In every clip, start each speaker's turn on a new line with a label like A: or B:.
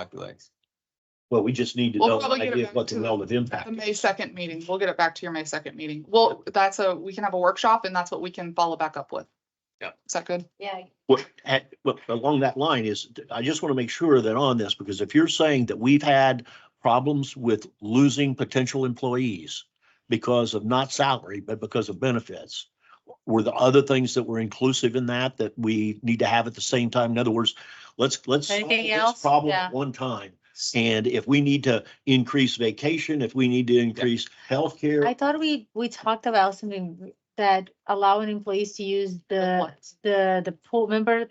A: calculates.
B: Well, we just need to
C: We'll
B: know
C: probably
B: an
C: get it
B: idea
C: back
B: of what the
C: to
B: relative
C: At
B: impact.
C: the
B: is.
C: May second meeting, we'll get it back to your May second meeting. Well, that's a, we can have a workshop and that's what we can follow back up with.
A: Yep.
C: Is that good?
D: Yeah,
B: What, at, what, along that line is, I just want to make sure that on this, because if you're saying that we've had problems with losing potential employees because of not salary, but because of benefits, were the other things that were inclusive in that, that we need to have at the same time? In other words, let's, let's solve
D: Anything
B: this
D: else?
B: problem
D: Yeah.
B: at one time. And if we need to increase vacation, if we need to increase
D: I
B: healthcare,
D: thought we, we talked about something that allowing employees to use the, the, the pool, remember?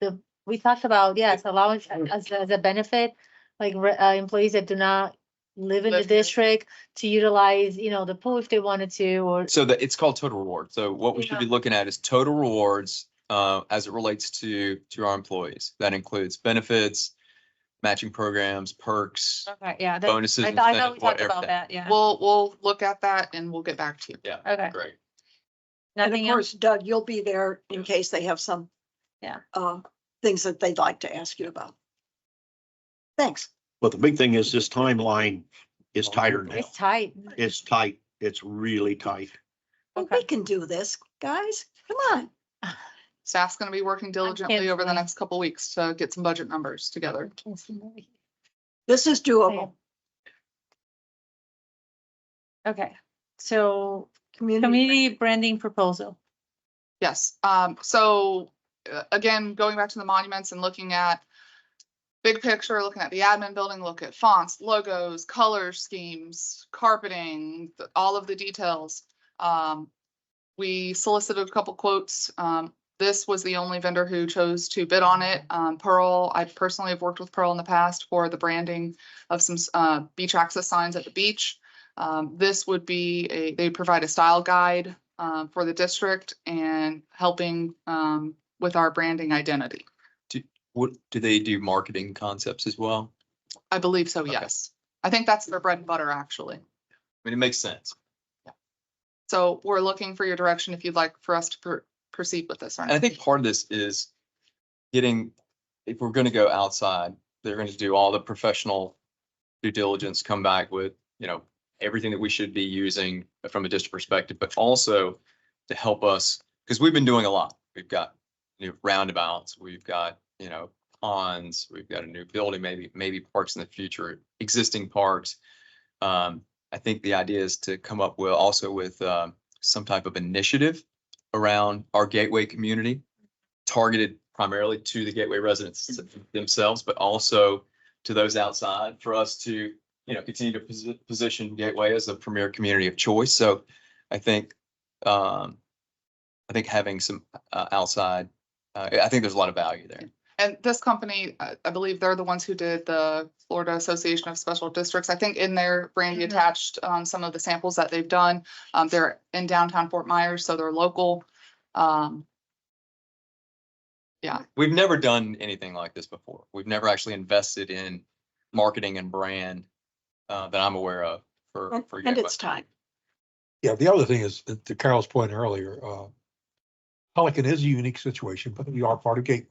D: The, we talked about, yes, allowing as, as a benefit, like, re- uh, employees that do not live in the
C: Live here.
D: district to utilize, you know, the pool if they wanted to, or,
A: So that it's called total reward. So what we should be looking at is total rewards uh, as it relates to to our employees. That includes benefits, matching programs, perks,
E: Okay, yeah, that,
A: bonuses,
E: Uh, I thought, I thought we
A: incentives,
E: talked
A: whatever.
E: about that, yeah.
C: We'll, we'll look at that and we'll get back to you.
E: Okay,
A: Great.
F: And of
E: nothing else?
F: course, Doug, you'll be there in case they have some.
E: Yeah.
F: Uh, things that they'd like to ask you about. Thanks.
B: but the big thing is this timeline is tighter now.
D: it's tight.
B: It's tight. It's really tight.
F: Well,
E: Okay.
F: Oh, We can do this, guys. Come on.
C: Staff's gonna be working diligently over the
D: canceling.
C: next couple weeks to get some budget numbers together.
F: This is doable.
E: Okay, so community
F: Community.
E: branding proposal.
C: Yes, um, so, uh, again, going back to the monuments and looking at big picture, looking at the admin building, look at fonts, logos, color schemes, carpeting, th- all of the details. Um, we solicited a couple quotes. Um, this was the only vendor who chose to bid on it. Um, Pearl, I personally have worked with Pearl in the past for the branding of some, s- uh, beach access signs at the beach. Um, this would be a, they provide a style guide, um, for the district and helping, um, with our branding identity.
A: What do they do? Marketing concepts as well.
C: I believe so,
A: Okay.
C: yes. I think that's their bread and butter, actually.
A: I mean, it makes sense.
C: So we're looking for your direction if you'd like for us to pr- proceed with this. or
A: And I
C: not.
A: think part of this is getting, if we're gonna go outside, they're gonna do all the professional due diligence, come back with, you know, everything that we should be using from a district perspective, but also to help us, because we've been doing a lot. We've got new roundabouts, we've got, you know, ponds, we've got a new building, maybe, maybe parks in the future, existing parks. Um, I think the idea is to come up with, also with, um, some type of initiative around our gateway community, targeted primarily to the gateway residents
F: Mm-hmm.
A: themselves, but also to those outside for us to, you know, continue to posi- position Gateway as a premier community of choice. So I think, um, I think having some uh, outside, uh, I think there's a lot of value there.
C: And this company, I, I believe they're the ones who did the Florida Association of Special Districts. I think in their brandy
E: Mhm.
C: attached, um, some of the samples that they've done. Um, they're in downtown Fort Myers, so they're local. Um,
A: We've never done anything like this before. We've never actually invested in marketing and brand uh, that I'm aware of for,
F: And
A: for
F: and
A: Gateway.
F: it's time.
G: Yeah, the other thing is, uh, to Carol's point earlier, uh, Pelican is a unique situation, but we are part of Gate.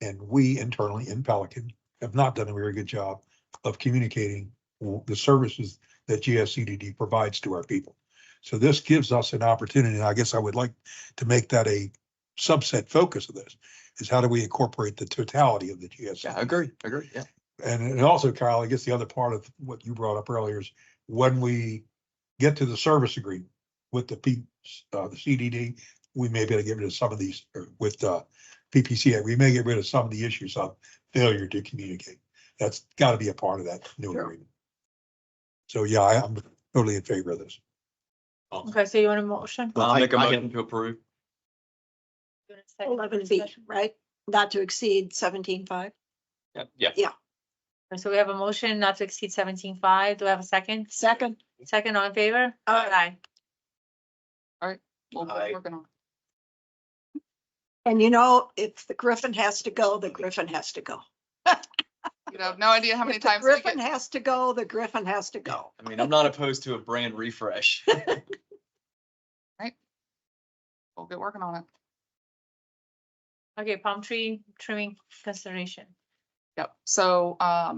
G: And we internally in Pelican have not done a very good job of communicating w- the services that GSCDD provides to our people. So this gives us an opportunity, and I guess I would like to make that a subset focus of this, is how do we incorporate the totality of the
A: Yeah,
G: GSCDD?
A: agree, agree, yeah.
G: And, and also, Kyle, I guess the other part of what you brought up earlier is when we get to the service agreement with the P, uh, the CDD, we may be able to get rid of some of these, or with, uh, PPCA, we may get rid of some of the issues of failure to communicate. That's gotta be a part of that new
F: Sure.
G: agreement. So, yeah, I- I'm totally in favor of this.
D: Okay, so you want a motion?
B: Well,
A: I'll
B: I-
A: make a
B: I have-
A: motion to approve.
D: You want a second
F: Eleven B,
D: discussion?
F: right? Not to exceed seventeen five.
A: Yeah, yeah.
D: So we have a motion not to exceed seventeen five. Do I have a second?
F: Second.
D: Second, all in favor?
F: Aye.
C: we'll be
B: I-
C: working on.
F: And you know, if the Griffin has to go, the Griffin has to go.
C: You have no idea how many
F: If the
C: times we
F: Griffin
C: get,
F: has to go, the Griffin has to go.
A: I mean, I'm not opposed to a brand refresh.
C: we'll get working on it.
D: Okay, palm tree trimming consideration.
C: Yep, so, um,